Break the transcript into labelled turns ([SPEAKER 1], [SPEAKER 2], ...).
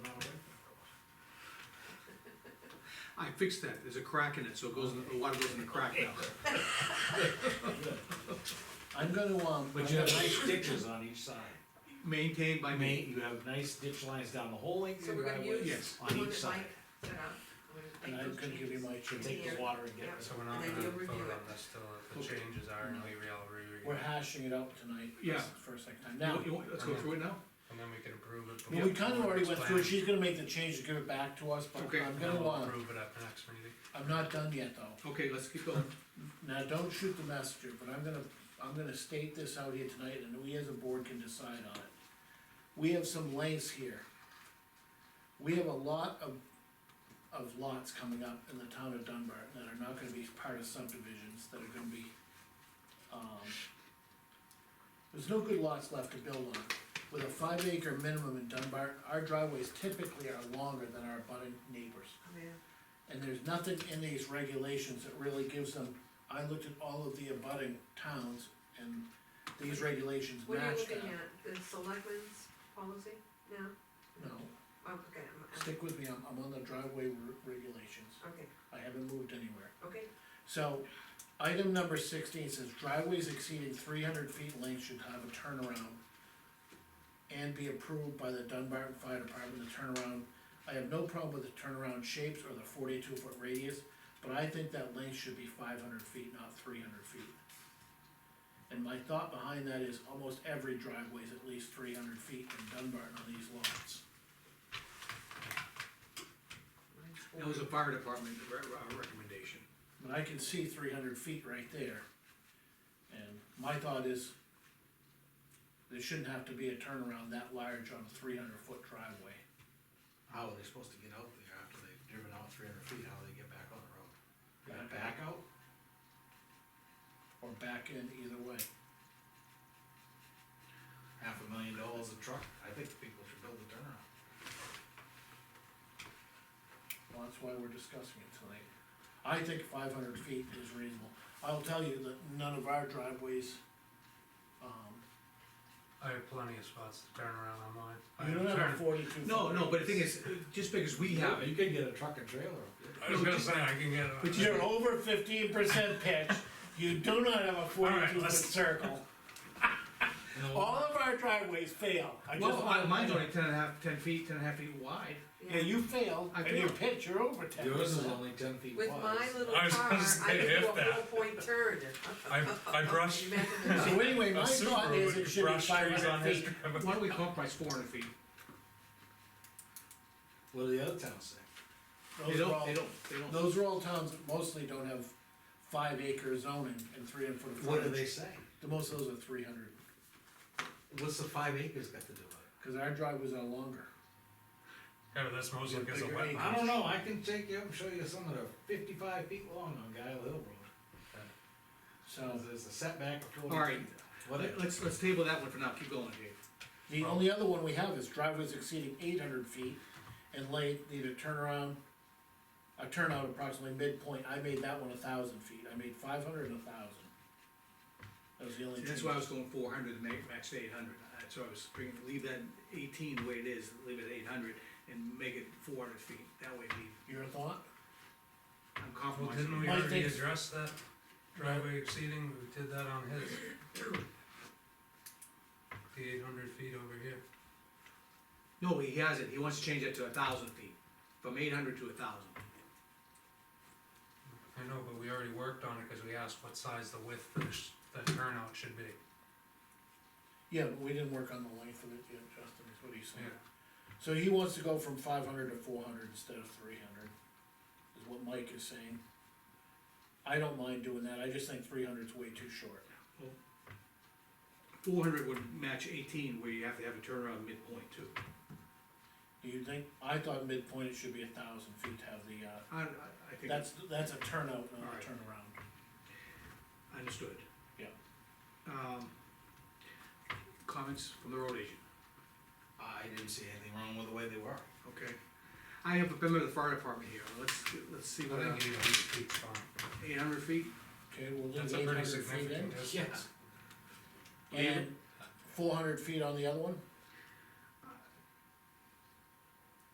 [SPEAKER 1] I fixed that, there's a crack in it, so it goes, in the the water goes in the crack now.
[SPEAKER 2] I'm gonna, um.
[SPEAKER 3] But
[SPEAKER 2] I'm
[SPEAKER 3] you have
[SPEAKER 2] gonna-
[SPEAKER 3] nice ditches on each side.
[SPEAKER 1] Maintained by
[SPEAKER 3] I
[SPEAKER 1] me,
[SPEAKER 3] mean, you have nice ditch lines down the whole length
[SPEAKER 4] So
[SPEAKER 3] of
[SPEAKER 4] we're
[SPEAKER 3] your
[SPEAKER 4] gonna
[SPEAKER 3] driveway.
[SPEAKER 4] use.
[SPEAKER 1] yes,
[SPEAKER 3] on
[SPEAKER 4] the one
[SPEAKER 3] each
[SPEAKER 4] that
[SPEAKER 3] side.
[SPEAKER 4] Mike set up. I'm
[SPEAKER 2] And
[SPEAKER 4] gonna
[SPEAKER 2] I'm
[SPEAKER 4] make those
[SPEAKER 2] gonna give you
[SPEAKER 4] changes.
[SPEAKER 2] my change,
[SPEAKER 3] Take the water and get
[SPEAKER 4] Yeah.
[SPEAKER 3] it.
[SPEAKER 5] So we're not
[SPEAKER 4] And then
[SPEAKER 5] gonna
[SPEAKER 4] you'll review
[SPEAKER 5] vote
[SPEAKER 4] it.
[SPEAKER 5] on this till the
[SPEAKER 1] Okay.
[SPEAKER 5] changes are, and we all review
[SPEAKER 2] we're
[SPEAKER 5] it,
[SPEAKER 2] hashing it out tonight.
[SPEAKER 1] Yeah.
[SPEAKER 2] This is the First thing,
[SPEAKER 1] You
[SPEAKER 2] now,
[SPEAKER 1] want- you want- let's go through it now,
[SPEAKER 5] and then we can approve it.
[SPEAKER 2] well, we
[SPEAKER 5] before
[SPEAKER 2] kinda already went through it,
[SPEAKER 5] it's
[SPEAKER 2] she's gonna make the change to give it back to us, but
[SPEAKER 1] Okay.
[SPEAKER 2] I'm
[SPEAKER 5] planned, and
[SPEAKER 2] gonna,
[SPEAKER 5] we'll
[SPEAKER 2] uh,
[SPEAKER 5] Approve it at the next meeting.
[SPEAKER 2] I'm not done yet though.
[SPEAKER 1] okay, let's keep going,
[SPEAKER 2] Now, don't shoot the messenger, but I'm gonna, I'm gonna state this out here tonight, and we as a board can decide on it. We have some lengths here. We have a lot of, of lots coming up in the town of Dunbar that are not gonna be part of subdivisions, that are gonna be, um, there's no good lots left to build on. With a five acre minimum in Dunbar, our driveways typically are longer than our abutting neighbors.
[SPEAKER 4] Oh, yeah.
[SPEAKER 2] And there's nothing in these regulations that really gives them, I looked at all of the abutting towns and these regulations
[SPEAKER 4] What are you
[SPEAKER 2] match that.
[SPEAKER 4] looking at, the selectmen's policy now?
[SPEAKER 2] No,
[SPEAKER 4] Oh, okay, I'm, I'm,
[SPEAKER 2] stick with me, I'm, I'm on the driveway re- regulations,
[SPEAKER 4] okay,
[SPEAKER 2] I haven't moved anywhere.
[SPEAKER 4] okay,
[SPEAKER 2] So, item number sixteen says driveways exceeding three hundred feet in length should have a turnaround and be approved by the Dunbar Fire Department, the turnaround. I have no problem with the turnaround shapes or the forty-two foot radius, but I think that length should be five hundred feet, not three hundred feet. And my thought behind that is almost every driveway is at least three hundred feet in Dunbar on these lots.
[SPEAKER 4] mine's
[SPEAKER 1] that was a
[SPEAKER 4] forty.
[SPEAKER 1] fire department re- re- recommendation.
[SPEAKER 2] But I can see three hundred feet right there. And my thought is, there shouldn't have to be a turnaround that large on a three hundred foot driveway.
[SPEAKER 3] How are they supposed to get out there after they've driven out three hundred feet, how do they get back on the road? They gotta back out?
[SPEAKER 2] Or back in either way.
[SPEAKER 3] Half a million dollars a truck, I think people should build a turnaround.
[SPEAKER 2] Well, that's why we're discussing it tonight. I think five hundred feet is reasonable. I'll tell you that none of our driveways, um,
[SPEAKER 5] I have plenty of spots to turn around on mine. I
[SPEAKER 2] you don't have a
[SPEAKER 5] turn-
[SPEAKER 2] forty-two.
[SPEAKER 1] No,
[SPEAKER 2] foot
[SPEAKER 1] no, but the
[SPEAKER 2] radius.
[SPEAKER 1] thing is, uh, just because we have
[SPEAKER 3] You
[SPEAKER 1] it,
[SPEAKER 3] could get a truck and trailer up there.
[SPEAKER 5] I was gonna say, I can get
[SPEAKER 2] But
[SPEAKER 5] it.
[SPEAKER 2] you're over fifteen percent pitch, you do not have a
[SPEAKER 5] right,
[SPEAKER 2] forty-two foot
[SPEAKER 5] let's-
[SPEAKER 2] circle.
[SPEAKER 3] You know,
[SPEAKER 2] All of our driveways fail. I just
[SPEAKER 1] well,
[SPEAKER 2] wanna-
[SPEAKER 1] I- mine's only ten and a half, ten feet, ten and a half feet wide.
[SPEAKER 2] Yeah, you failed,
[SPEAKER 1] I
[SPEAKER 2] and your
[SPEAKER 1] failed.
[SPEAKER 2] pitch, you're over ten
[SPEAKER 3] Yours is
[SPEAKER 2] percent.
[SPEAKER 3] only ten feet wide.
[SPEAKER 4] With my little car,
[SPEAKER 5] I was gonna
[SPEAKER 4] I
[SPEAKER 5] say,
[SPEAKER 4] can do
[SPEAKER 5] if
[SPEAKER 4] a
[SPEAKER 5] that.
[SPEAKER 4] full point turn.
[SPEAKER 5] I, I brush
[SPEAKER 4] You imagine that?
[SPEAKER 2] So anyway, my
[SPEAKER 5] a
[SPEAKER 2] thought
[SPEAKER 5] Subaru
[SPEAKER 2] is it
[SPEAKER 5] with
[SPEAKER 2] should be
[SPEAKER 5] brush
[SPEAKER 2] five
[SPEAKER 5] trees on
[SPEAKER 2] hundred
[SPEAKER 5] his
[SPEAKER 2] feet.
[SPEAKER 5] driveway.
[SPEAKER 1] Why don't we compromise four hundred feet?
[SPEAKER 3] What do the other towns say?
[SPEAKER 1] They
[SPEAKER 2] Those are
[SPEAKER 1] don't,
[SPEAKER 2] all,
[SPEAKER 1] they don't, they don't.
[SPEAKER 2] those are all towns that mostly don't have five acre zoning and three hundred foot of
[SPEAKER 3] What do they
[SPEAKER 2] frontage.
[SPEAKER 3] say?
[SPEAKER 2] The most of those are three hundred,
[SPEAKER 3] What's the five acres got to do with it?
[SPEAKER 2] cause our driveways are longer.
[SPEAKER 5] Yeah, but that's mostly because of
[SPEAKER 2] Bigger acres.
[SPEAKER 5] wetland.
[SPEAKER 3] I don't know, I can take you up and show you some that are fifty-five feet long on Guile Hill Road.
[SPEAKER 2] So,
[SPEAKER 3] There's a setback of forty feet.
[SPEAKER 1] All right.
[SPEAKER 3] Whatever.
[SPEAKER 1] Let's, let's table that one for now, keep going, Dave.
[SPEAKER 2] the only other one we have is driveways exceeding eight hundred feet and late, need a turnaround, a turnout approximately midpoint, I made that one a thousand feet, I made five hundred and a thousand. That was the only.
[SPEAKER 1] See, That's
[SPEAKER 2] change.
[SPEAKER 1] why I was going four hundred, to make, max eight hundred, that's why I was bringing, leave that eighteen the way it is, leave it eight hundred, and make it four hundred feet, that way we,
[SPEAKER 2] Your thought?
[SPEAKER 1] I'm
[SPEAKER 5] Well, didn't we
[SPEAKER 1] compromising.
[SPEAKER 2] My
[SPEAKER 5] already
[SPEAKER 2] thing-
[SPEAKER 5] address that driveway exceeding, we did that on his. The eight hundred feet over here.
[SPEAKER 1] No, he hasn't, he wants to change that to a thousand feet, from eight hundred to a thousand.
[SPEAKER 5] I know, but we already worked on it, cause we asked what size the width for the, sh- the turnout should be.
[SPEAKER 2] Yeah, but we didn't work on the length of it yet, Justin, is what he's saying.
[SPEAKER 5] Yeah.
[SPEAKER 2] So he wants to go from five hundred to four hundred instead of three hundred, is what Mike is saying. I don't mind doing that, I just think three hundred's way too short.
[SPEAKER 1] Four hundred would match eighteen, where you have to have a turnaround midpoint too.
[SPEAKER 2] Do you think, I thought midpoint it should be a thousand feet to have the, uh,
[SPEAKER 1] I, I, I think,
[SPEAKER 2] that's, that's a turnout, not
[SPEAKER 1] Alright.
[SPEAKER 2] a turnaround.
[SPEAKER 1] understood.
[SPEAKER 2] Yeah.
[SPEAKER 1] Um, comments from the road agent?
[SPEAKER 3] I didn't see anything wrong with the way they were.
[SPEAKER 1] Okay. I have a member of the fire department here, let's, let's see what,
[SPEAKER 2] Uh,
[SPEAKER 5] I think eight hundred feet's fine.
[SPEAKER 1] eight hundred feet?
[SPEAKER 2] Okay, we'll
[SPEAKER 5] That's
[SPEAKER 2] leave
[SPEAKER 5] a
[SPEAKER 2] eight
[SPEAKER 5] pretty
[SPEAKER 2] hundred feet
[SPEAKER 5] significant
[SPEAKER 2] in,
[SPEAKER 3] Yes.
[SPEAKER 5] distance.
[SPEAKER 2] and four hundred feet on the other one?